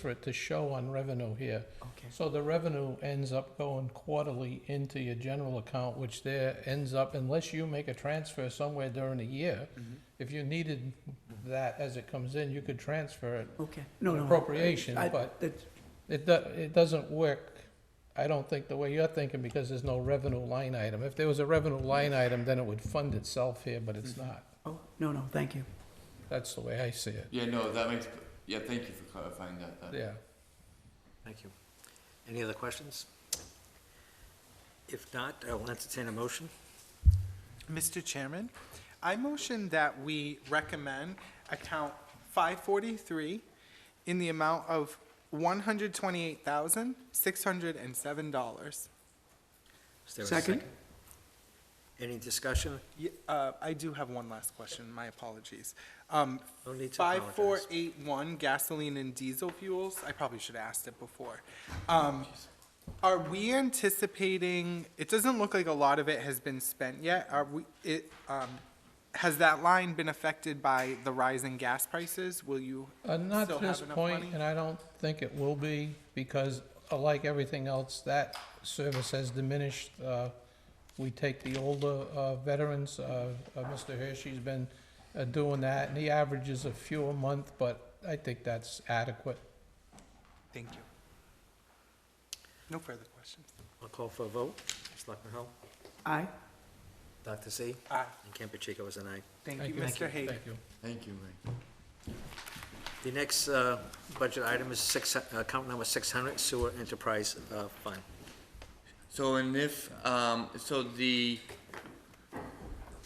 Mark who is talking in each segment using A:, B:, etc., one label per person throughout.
A: for it to show on revenue here.
B: Okay.
A: So the revenue ends up going quarterly into your general account, which there ends up, unless you make a transfer somewhere during the year,
B: Mm-hmm.
A: if you needed that as it comes in, you could transfer it
B: Okay, no, no.
A: appropriation,
B: I-
A: but
B: that's-
A: it, do- it doesn't work, I don't think, the way you're thinking, because there's no revenue line item. If there was a revenue line item, then it would fund itself here, but it's not.
B: Oh, no, no, thank you.
A: That's the way I see it,
C: Yeah, no, that makes, yeah, thank you for clarifying that. that-
A: yeah.
D: Thank you. Any other questions? If not, I will entertain a motion.
E: Mr. Chairman, I motion that we recommend account 543 in the amount of $128,607.
D: Is there a
B: Second?
D: Any discussion?
E: Ye- uh, I do have one last question, my apologies. Um,
D: No need to apologize.
E: 5481 gasoline and diesel fuels, I probably should have asked it before. Um, Are we anticipating, it doesn't look like a lot of it has been spent yet, are we, it, um, has that line been affected by the rise in gas prices? Will you
A: Uh, Not
E: still
A: at this
E: have enough
A: point,
E: money?
A: and I don't think it will be, because uh, like everything else, that service has diminished. Uh, We take the older uh, veterans, uh, uh, Mr. Hershey's been uh, doing that, and he averages a few a month, but I think that's adequate.
E: Thank you. No further questions.
D: I'll call for a vote. Selectman Hull?
B: Aye,
D: Dr. Z?
E: Aye.
D: And Campuchico is an aye.
E: Thank you, Mr. Hagan.
A: Thank you.
C: Thank you, Ray.
D: The next uh, budget item is six, uh, account number 600, Sewer Enterprise uh, Fund.
C: So and if um, so the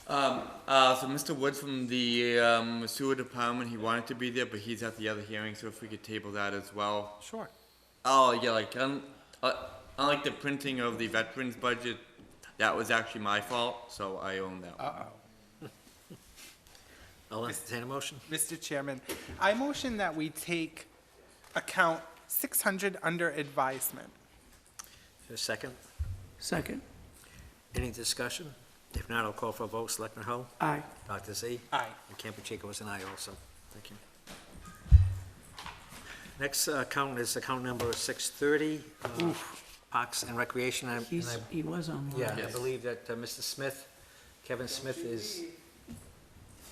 C: um, uh, so Mr. Woods from the um, sewer department, he wanted to be there, but he's at the other hearing. So if we could table that as well.
E: Sure.
C: Oh yeah, like un, uh, unlike the printing of the veterans budget, that was actually my fault. So I own that. one.
E: Uh-oh.
D: I'll entertain a motion.
E: Mr. Chairman, I motion that we take account 600 under advisement.
D: Is there A second.
B: second,
D: Any discussion? If not, I'll call for a vote. Selectman Hull?
B: aye,
D: Dr. Z?
E: Aye.
D: And Campuchico is an aye also. Thank you. Next uh, account is account number 630, uh, Parks and Recreation. and I- and
B: he's,
D: I-
B: he was on one.
D: Yeah, I
C: Yes.
D: believe that uh, Mr. Smith, Kevin Smith is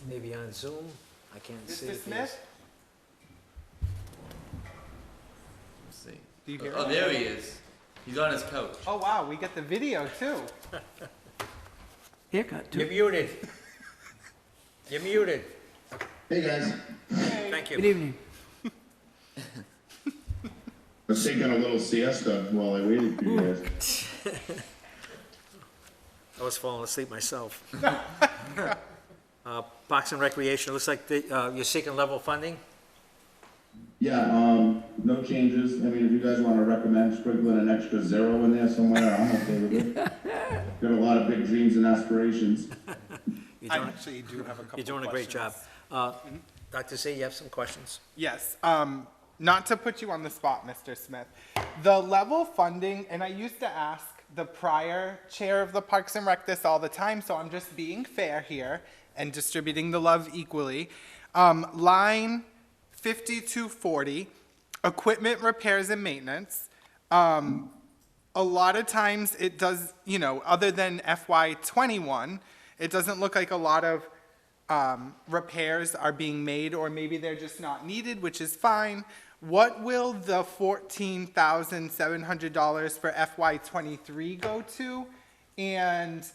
D: maybe on Zoom. I can't see.
E: Mr.
D: if he
E: Smith?
D: is.
C: Let's see.
E: Do you hear
C: oh,
E: me?
C: there he is. He's on his couch.
E: Oh, wow, we get the video too.
B: Haircut,
D: You're
B: too.
D: muted. You're muted.
F: Hey guys,
D: Thank
B: Good
D: you.
B: evening.
F: I was taking a little siesta while I waited for you guys.
D: I was falling asleep myself. Uh, Parks and Recreation, it looks like the, uh, you're seeking level funding?
F: Yeah, um, no changes. I mean, if you guys want to recommend sprinkling an extra zero in there somewhere, I'm okay with it. Got a lot of big dreams and aspirations.
D: You're
E: I
D: doing-
E: actually do have a couple
D: You're doing a great job.
E: questions.
D: Uh, Dr. Z, you have some questions?
E: Yes, um, not to put you on the spot, Mr. Smith. The level funding, and I used to ask the prior chair of the Parks and Rec this all the time, so I'm just being fair here and distributing the love equally. Um, line 5240, equipment repairs and maintenance. Um, a lot of times it does, you know, other than FY21, it doesn't look like a lot of um, repairs are being made, or maybe they're just not needed, which is fine. What will the $14,700 for FY23 go to? And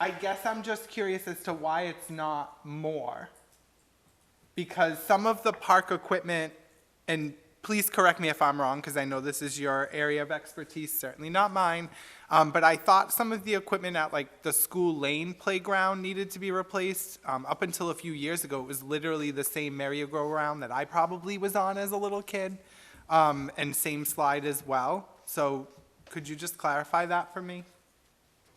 E: I guess I'm just curious as to why it's not more. Because some of the park equipment, and please correct me if I'm wrong, because I know this is your area of expertise, certainly not mine. Um, but I thought some of the equipment at like the school lane playground needed to be replaced. Um, up until a few years ago, it was literally the same merry-go-round that I probably was on as a little kid. Um, and same slide as well. So could you just clarify that for me?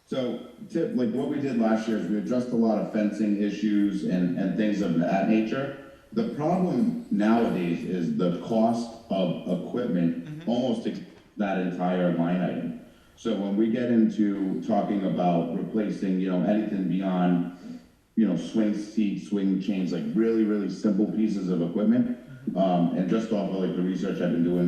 F: So, tip, like what we did last year is we addressed a lot of fencing issues and, and things of that nature. The problem nowadays is the cost of equipment almost ex- that entire line item. So when we get into talking about replacing, you know, anything beyond, you know, swing seats, swing chains, like really, really simple pieces of equipment, Um, and just off of like the research I've been doing